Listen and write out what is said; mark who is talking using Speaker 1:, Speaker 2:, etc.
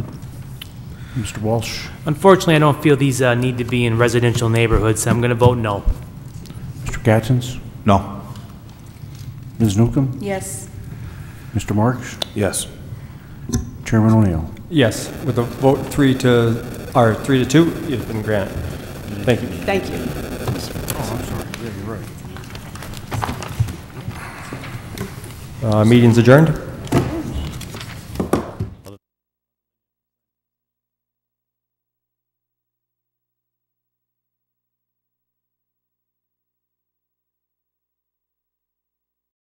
Speaker 1: Mr. Walsh,
Speaker 2: Unfortunately, I don't feel these uh, need to be in residential neighborhoods, so I'm going to vote no.
Speaker 1: Mr. Gattens,
Speaker 3: No.
Speaker 1: Ms. Newcomb,
Speaker 4: Yes.
Speaker 1: Mr. Marks,
Speaker 3: Yes.
Speaker 1: Chairman O'Neill.
Speaker 5: Yes, with a vote three to, or three to two, it's been granted. Thank you.
Speaker 4: Thank you.
Speaker 5: Uh, Meeting's adjourned.